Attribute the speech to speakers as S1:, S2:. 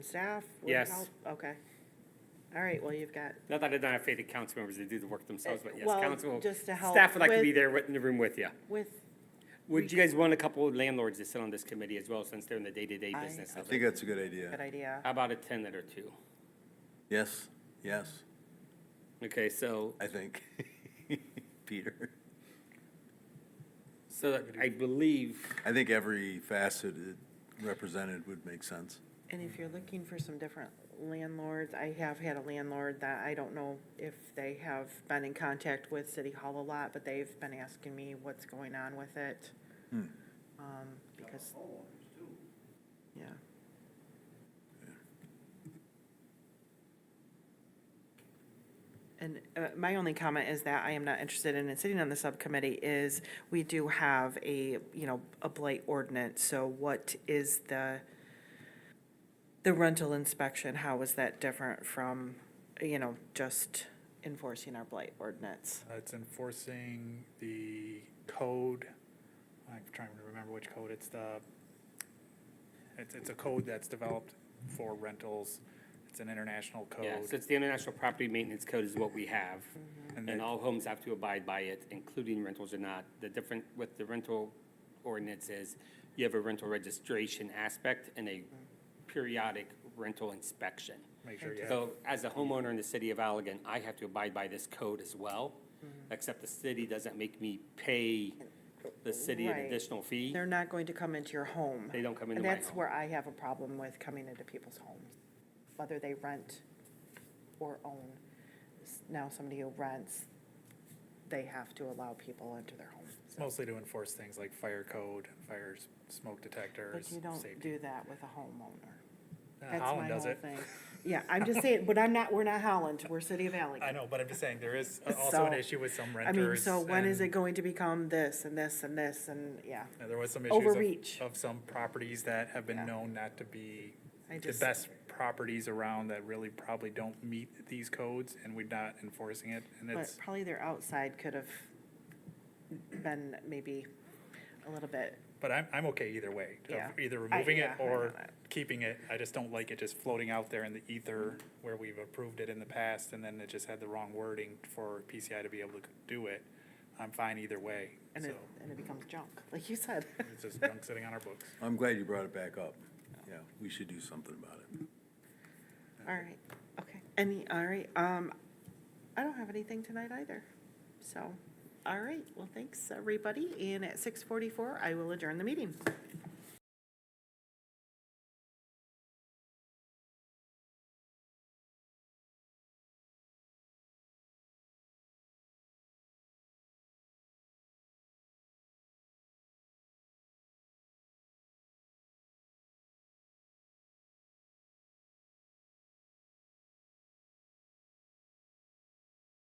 S1: Staff? would
S2: Yes.
S1: help? Okay. All right, well, you've got,
S2: Not that I don't have faith in council members to do the work themselves, but yes,
S1: Well,
S2: council,
S1: just to help
S2: staff would like to be
S1: with-
S2: there with- in the room with you.
S1: with,
S2: Would you guys want a couple of landlords to sit on this committee as well, since they're in the day-to-day
S1: I-
S2: business
S1: I
S2: of
S3: I think
S2: it?
S3: that's a good
S1: good
S3: idea.
S1: idea.
S2: How about a tenant or two?
S3: Yes, yes,
S2: Okay, so,
S3: I think. Peter,
S2: so I believe,
S3: I think every facet represented would make sense.
S1: And if you're looking for some different landlords, I have had a landlord that I don't know if they have been in contact with City Hall a lot, but they've been asking me what's going on with it. Um, because. Yeah. And uh, my only comment is that I am not interested in sitting on the subcommittee is we do have a, you know, a blight ordinance. So what is the, the rental inspection, how is that different from, you know, just enforcing our blight ordinance?
S4: Uh, It's enforcing the code, I'm trying to remember which code, it's the, it's, it's a code that's developed for rentals, it's an international
S2: yeah, so
S4: code.
S2: it's the International Property Maintenance Code is what we have.
S4: And
S2: And
S4: then,
S2: all homes have to abide by it, including rentals or not. The different with the rental ordinance is you have a rental registration aspect and a periodic rental inspection.
S4: make sure you have,
S2: So as a homeowner in the city of Allegan, I have to abide by this code as well,
S1: Mm-hmm.
S2: except the city doesn't make me pay the city an
S1: Right.
S2: additional fee.
S1: They're not going to come into your home.
S2: They don't come into
S1: And
S2: my
S1: that's
S2: home.
S1: where I have a problem with coming into people's homes, whether they rent or own. S- Now, somebody who rents, they have to allow people into their home.
S4: it's mostly to enforce things like fire code, fire s- smoke detectors,
S1: But you don't
S4: safety.
S1: do that with a homeowner.
S4: Uh,
S1: That's my
S4: Holland does
S1: whole
S4: it.
S1: thing. Yeah, I'm just saying, but I'm not, we're not Holland, we're City of Allegan.
S4: I know, but I'm just saying, there is a- also an
S1: So,
S4: issue with some
S1: I mean,
S4: renters.
S1: so when is it
S4: and-
S1: going to become this and this and this and, yeah.
S4: and There was some issues of-
S1: Overreach.
S4: Of some properties that have
S1: Yeah.
S4: been known not to be
S1: I
S4: the
S1: just-
S4: best properties around that really probably don't meet these codes and we're not enforcing it. And
S1: But
S4: it's,
S1: probably their outside could have been maybe a little bit,
S4: but I'm, I'm okay either way, of
S1: Yeah.
S4: either
S1: I-
S4: removing it
S1: yeah, I know
S4: or
S1: that.
S4: keeping it. I just don't like it just floating out there in the ether where we've approved it in the past and then it just had the wrong wording for PCI to be able to do it. I'm fine either way,
S1: and
S4: so
S1: it, and it becomes junk, like you said.
S4: it's just junk sitting on our books.
S3: I'm glad you brought it back up. Yeah, we should do something about it.
S1: All right, okay. Any, all right, um, I don't have anything tonight either. So, all right, well, thanks, everybody. And at six forty-four, I will adjourn the meeting.